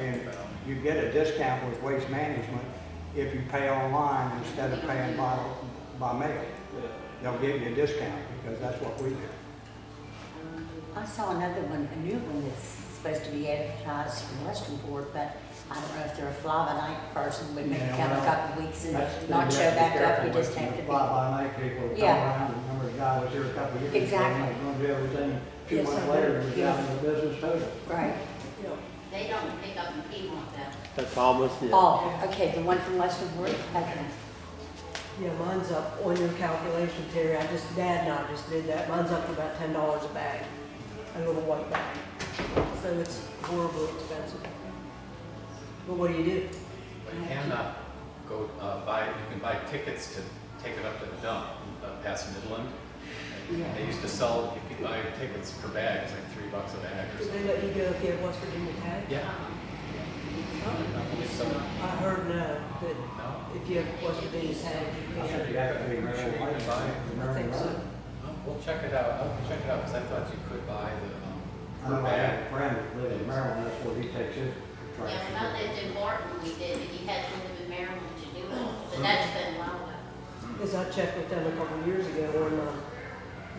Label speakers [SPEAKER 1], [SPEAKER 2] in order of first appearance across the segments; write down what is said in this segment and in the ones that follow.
[SPEAKER 1] uh, you get a discount with waste management if you pay online instead of paying by, by mail. They'll give you a discount because that's what we do.
[SPEAKER 2] I saw another one, a new one that's supposed to be advertised from Westernport, but I don't know if they're a fly-by-night person, would maybe
[SPEAKER 1] Yeah,
[SPEAKER 2] come a
[SPEAKER 1] well,
[SPEAKER 2] couple weeks and
[SPEAKER 1] That's- you
[SPEAKER 2] not
[SPEAKER 1] have
[SPEAKER 2] show
[SPEAKER 1] to be
[SPEAKER 2] back up,
[SPEAKER 1] careful
[SPEAKER 2] you
[SPEAKER 1] with
[SPEAKER 2] just have to
[SPEAKER 1] Fly
[SPEAKER 2] be.
[SPEAKER 1] by night people come
[SPEAKER 2] Yeah.
[SPEAKER 1] around, remember the guy was here a couple years ago.
[SPEAKER 2] Exactly.
[SPEAKER 1] and He was gonna do everything, two
[SPEAKER 2] Yes,
[SPEAKER 1] months
[SPEAKER 2] I
[SPEAKER 1] later,
[SPEAKER 2] know.
[SPEAKER 1] he was
[SPEAKER 2] Yeah.
[SPEAKER 1] out of the business total.
[SPEAKER 2] Right.
[SPEAKER 3] They don't pick up in Piedmont though.
[SPEAKER 4] That's almost it.
[SPEAKER 2] Oh, okay, the one from Westernport, okay.
[SPEAKER 5] Yeah, mine's up on your calculation, Terry. I just, Dad and I just did that. Mine's up to about ten dollars a bag, a little white bag. So it's horribly expensive. But what do you do?
[SPEAKER 6] But you cannot go uh, buy, you can buy tickets to take it up to the dump, uh, past Midland.
[SPEAKER 2] Yeah.
[SPEAKER 6] They used to sell, you could buy tickets per bag, it's like three bucks a bag
[SPEAKER 5] Do
[SPEAKER 6] or
[SPEAKER 5] they
[SPEAKER 6] something.
[SPEAKER 5] let you go if you have West Virginia tag?
[SPEAKER 6] Yeah. I believe so.
[SPEAKER 5] I heard no,
[SPEAKER 6] No?
[SPEAKER 5] that if you have West Virginia tag,
[SPEAKER 1] I
[SPEAKER 5] you can't.
[SPEAKER 1] said, "You have to be
[SPEAKER 6] I'm sure
[SPEAKER 1] very
[SPEAKER 6] you
[SPEAKER 1] white."
[SPEAKER 6] can buy it.
[SPEAKER 5] I think so.
[SPEAKER 6] Well, We'll check it out, I'll check it out, because I thought you could
[SPEAKER 1] I
[SPEAKER 6] buy the um, per
[SPEAKER 1] know I have a
[SPEAKER 6] bag.
[SPEAKER 1] friend that lives in Maryland, that's where he takes his trash.
[SPEAKER 3] Yeah, when I lived in Barton, we did, but you had to live in Maryland to do it, but that's been a while ago.
[SPEAKER 5] Because I checked with them a couple of years ago on, um,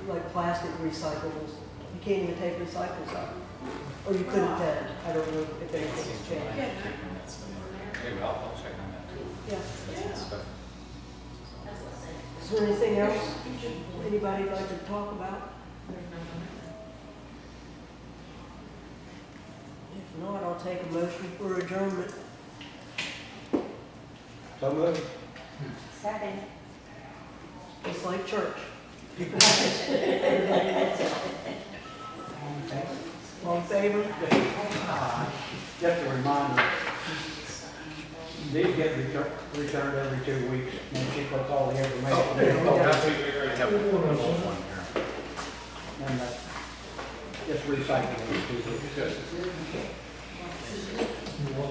[SPEAKER 5] like, plastic recyclables. You can't even take recyclables out. Or you couldn't then. I don't know if anything's changed.
[SPEAKER 6] Anyway, I'll, I'll check on that too.
[SPEAKER 5] Yeah.
[SPEAKER 6] That's good stuff.
[SPEAKER 3] That's what I said.
[SPEAKER 5] Is there anything else anybody would like to talk about? If not, I'll take a motion for adjournment.
[SPEAKER 1] So moved.
[SPEAKER 2] Second.
[SPEAKER 5] It's like church. All in favor?
[SPEAKER 1] Just a reminder, these get retur- returned every two weeks, and she puts all the
[SPEAKER 6] Oh,
[SPEAKER 1] information in.
[SPEAKER 6] oh, that's- we we already have one one here.
[SPEAKER 1] And uh, just recycle it.
[SPEAKER 6] Good.